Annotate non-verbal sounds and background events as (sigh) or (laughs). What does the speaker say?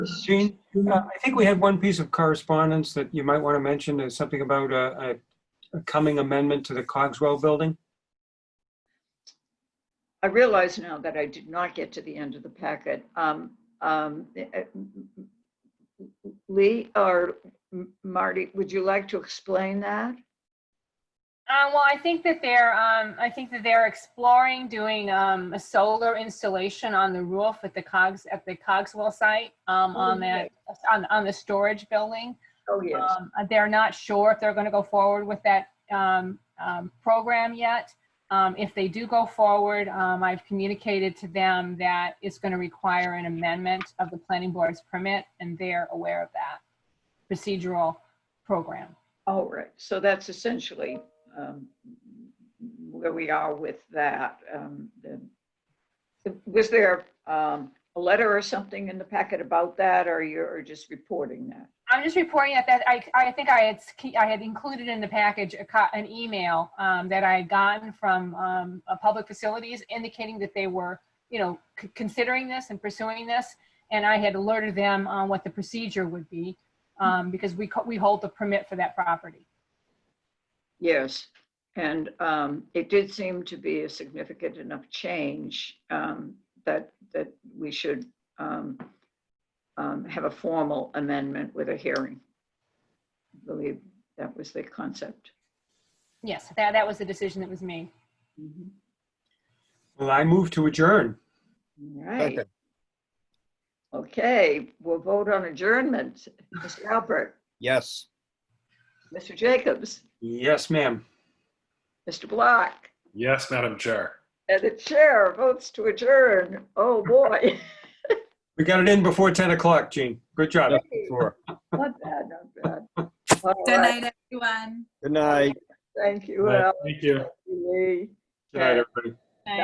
Jean, uh, I think we had one piece of correspondence that you might want to mention, is something about a, a- a coming amendment to the Cogswell building. I realize now that I did not get to the end of the packet. Um, um, eh, eh, Lee or M- Marty, would you like to explain that? Uh, well, I think that they're, um, I think that they're exploring doing, um, a solar installation on the roof at the Cogs, at the Cogswell site, um, Oh, on that, on, on the storage building. Oh, yes. Um, they're not sure if they're gonna go forward with that, um, um, program yet. Um, if they do go forward, um, I've communicated to them that it's gonna require an amendment of the planning board's permit, and they're aware of that procedural program. All right. So that's essentially um, where we are with that. Um, the- Was there um, a letter or something in the packet about that or you're just reporting that? I'm just reporting that, that I, I think I had, sk- I had included in the package a co- an email um, that I had gotten from um, a public facilities indicating that they were, you know, c- considering this and pursuing this. And I had alerted them on what the procedure would be um, because we, co- we hold the permit for that property. Yes, and um, it did seem to be a significant enough change um, that, that we should um, um, have a formal amendment with a hearing. I believe that was the concept. Yes, that, that was the decision that was made. All Well, I move to adjourn. right, okay, we'll vote on adjournment. Mr. Albert, Yes. Mr. Jacobs, Yes, ma'am. Mr. Block, Yes, Madam Chair. and the chair votes to adjourn. Oh, boy. (laughs) We got it in before 10 o'clock, Jean. Good job. Sure. Not bad, not (laughs) bad. All Good right. night, everyone. Good night. Thank you, Al. Thank you. Lee. Good night, everybody.